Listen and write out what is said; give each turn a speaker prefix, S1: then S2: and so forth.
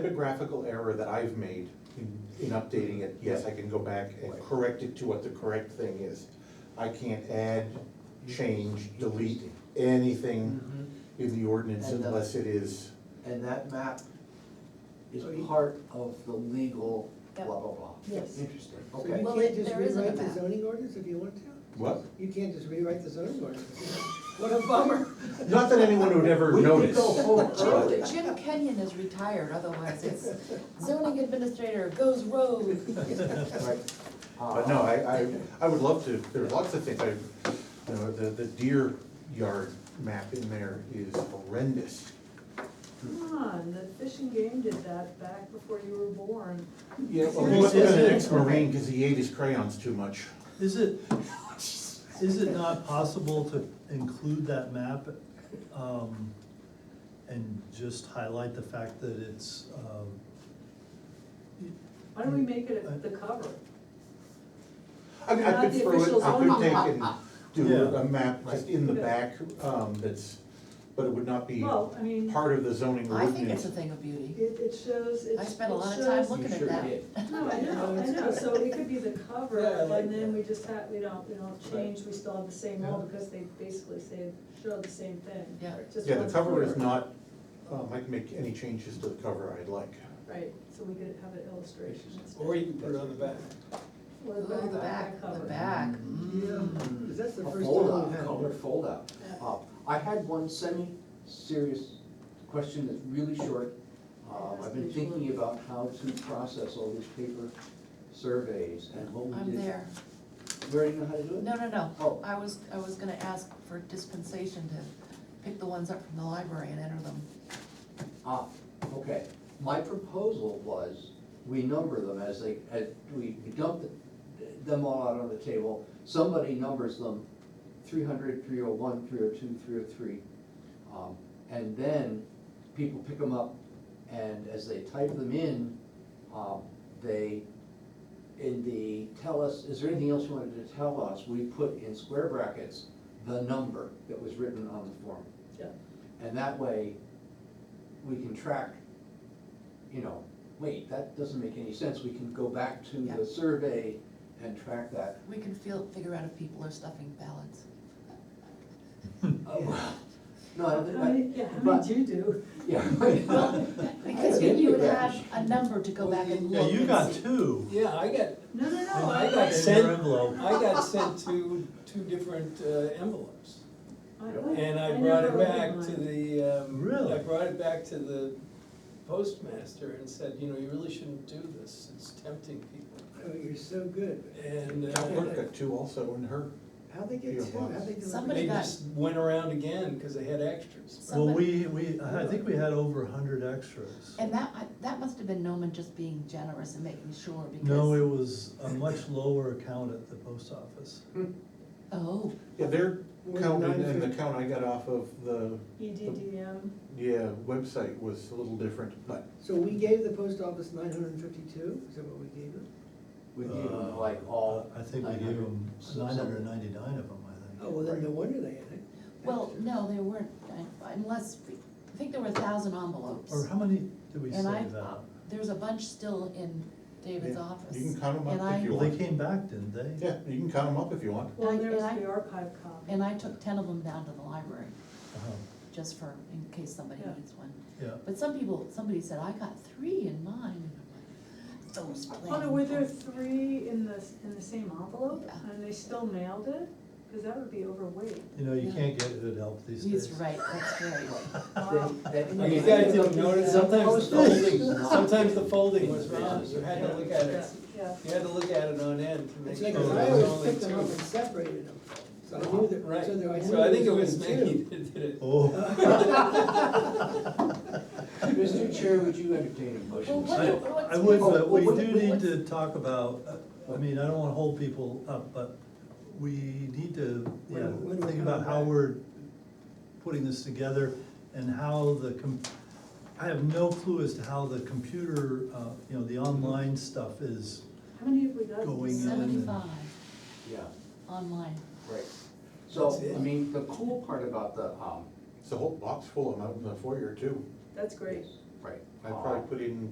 S1: typographical error that I've made in, in updating it, yes, I can go back and
S2: Right.
S1: correct it to what the correct thing is. I can't add, change, delete anything
S2: Mm-hmm.
S1: in the ordinance
S2: And the-
S1: unless it is,
S2: And that map is
S3: So you-
S2: part of the legal blah,
S4: Yep.
S2: blah, blah.
S3: Yes.
S2: Interesting.
S3: So
S2: Okay.
S3: you
S4: Well,
S3: can't
S4: it-
S3: just
S4: there isn't a
S3: rewrite the
S4: map.
S3: zoning ordinance if you want to?
S1: what?
S3: You can't just rewrite the zoning ordinance. What a bummer.
S1: Not that anyone would ever
S2: We could
S1: notice.
S2: go forward.
S1: but-
S4: Jim, Jim Kenyon is retired, otherwise it's zoning administrator goes rogue.
S2: Right.
S1: But
S2: Uh,
S1: no, I, I, I would love to, there's lots of things, I, you know, the, the deer yard map in there is horrendous.
S5: Come on, the fishing game did that back before you were born.
S1: Yeah, well,
S5: Seriously?
S1: look at an ex-marine, cause he ate his crayons too much.
S6: Is it, is it not possible to include that map, um, and just highlight the fact that it's, um,
S5: Why don't we make it a- the cover?
S1: I mean, I
S5: Not
S1: could
S5: the
S1: throw it,
S5: official
S1: I could
S5: zone.
S1: take and do
S6: Yeah.
S1: a map just in the back, um, that's, but it would not be
S5: Well, I mean,
S1: part of the zoning
S4: I think
S1: ordinance.
S4: it's a thing of beauty.
S5: it, it shows, it it
S4: I
S5: shows.
S4: spent a lot of time looking at
S2: sure
S4: that.
S2: did.
S5: No, I know, I know, so it could be the cover,
S3: Yeah, I like
S5: and then
S3: that.
S5: we just have, we don't, we don't change, we still have the same rule,
S6: Yeah.
S5: because they basically say, show the same thing.
S4: Yeah.
S5: Just
S1: Yeah, the
S5: one
S1: cover is
S5: cover.
S1: not, um, I can make any changes to the cover I'd like.
S5: Right, so we could have an illustration. instead.
S7: Or you can put it on the back.
S5: Or
S4: Ooh,
S5: the
S4: the back, the
S5: cover.
S4: back,
S3: Yeah,
S4: mm.
S3: is that the
S2: A
S3: first time
S2: fold-out,
S3: we've had?
S2: color fold-out.
S5: Yeah.
S1: Oh.
S2: Uh, I had one semi-serious question that's really short. Uh, I've been thinking about how to process all these paper surveys and what we
S4: I'm
S2: did.
S4: there.
S2: You already know how to do it?
S4: No, no, no.
S2: Oh.
S4: I was, I was gonna ask for dispensation to pick the ones up from the library and enter them.
S2: Ah, okay. My proposal was, we number them as they, as we dump the- them all out on the table. Somebody numbers them 300, 301, 302, 303, Um, and then people pick them up and as they type them in, um, they, in the, tell us, is there anything else you wanted to tell us? We put in square brackets the number that was written on the form.
S5: Yeah.
S2: And that way, we can track, you know, wait, that doesn't make any sense, we can go back to
S4: Yeah.
S2: the survey and track that.
S4: We can feel, figure out if people are stuffing ballots.
S2: Oh, well, No, I don't think,
S5: How many, yeah,
S2: I-
S5: how many
S2: but,
S5: do you do?
S2: yeah.
S4: Because you, you would have a number to go back and
S6: yeah,
S4: look
S6: you
S4: and
S6: got
S4: see.
S6: two.
S7: Yeah, I got,
S5: No, no, no,
S6: And
S5: I,
S7: I
S5: I,
S7: got
S6: In your
S7: sent,
S6: envelope.
S7: I got sent to two different uh, envelopes. And I
S5: I
S7: brought
S5: never
S7: it back
S5: opened
S7: to
S5: mine.
S7: the, um,
S6: Really?
S7: I brought it back to the postmaster and said, you know, you really shouldn't do this, it's tempting people.
S3: Oh, you're so good.
S7: And
S1: Calvert
S7: uh,
S1: got two also in her.
S3: How'd they get
S1: Your
S3: two? How'd they do it?
S4: Somebody-
S7: they
S4: got-
S7: just went around again because they had extras.
S6: Well,
S4: Somebody-
S6: we, we, I think we had over a hundred extras.
S4: And that, I- that must have been Noman just being generous and making sure because.
S6: No, it was a much lower count at the post office.
S4: Oh,
S1: Yeah, their
S3: Where's
S1: count
S3: nine
S1: and and the
S3: fifty?
S1: count I got off of the,
S5: E EDDM,
S1: yeah, website was a little different, but
S3: So we gave the post office nine hundred and fifty-two, is that what we gave them?
S2: We gave them
S6: Uh,
S2: like all.
S6: I think we gave
S2: 900,
S6: them
S2: so-
S6: nine hundred and
S2: so-
S6: ninety-nine of them, I
S3: Oh,
S6: think.
S3: well, then no wonder they had it.
S4: well, no, they weren't, uh, unless, I think there were a thousand envelopes.
S6: Or how many did we save
S4: And I,
S6: out?
S4: there's a bunch still in David's
S1: Yeah,
S4: office.
S1: you can count 'em up
S4: And
S1: if
S4: I-
S1: you
S6: Well, they came back, didn't they?
S1: yeah, you can count them up if you want.
S5: well,
S4: And I-
S5: there was
S4: and I-
S5: the archive copy.
S4: And I took ten of them down to the library,
S6: Uh-huh,
S4: just for, in case somebody
S5: Yeah.
S4: needs one.
S6: Yeah.
S4: But some people, somebody said, I got three in mine, and I'm like, those plans.
S5: Oh, no, were there three in the, s- in the same envelope,
S4: Yeah.
S5: and they still mailed it? Because that would be overweight.
S6: You know, you
S4: Yeah.
S6: can't get good help these days.
S4: He's right, that's right.
S5: Wow.
S2: That-
S7: You guys didn't notice, sometimes,
S2: Post
S7: the
S2: office.
S7: folding- sometimes the folding was wrong, you had to look at
S5: Yeah,
S7: it,
S5: yeah.
S7: you had to look at it on end to make
S3: It's
S7: sure.
S3: like,
S7: there
S3: I always
S7: was Oh, only
S3: picked them up
S7: two.
S3: and separated them, so I knew
S7: Right,
S3: that, so there I knew.
S7: so I think it
S3: there
S7: was
S3: only two.
S7: Maggie that did it.
S6: Oh,
S2: Mr. Chair, would you entertain a motion?
S4: Well, what
S6: I,
S4: do- what's-
S6: I would,
S2: Oh,
S6: but we
S2: what-
S6: do
S2: what-
S6: need
S2: what-
S6: to talk about, uh, I mean, I don't wanna hold people up, but we need to, yeah,
S3: When- when we
S6: think
S3: come
S6: about how
S3: back.
S6: we're putting this together and how the com- I have no clue as to how the computer, uh, you know, the online stuff is,
S5: How many have we got?
S6: Going in.
S4: Seventy-five
S2: Yeah,
S4: online.
S2: right. So,
S6: That's it.
S2: I mean, the cool part about the, um,
S1: It's a whole box full of them out in the foyer too.
S5: That's great.
S2: Right.
S1: I probably put in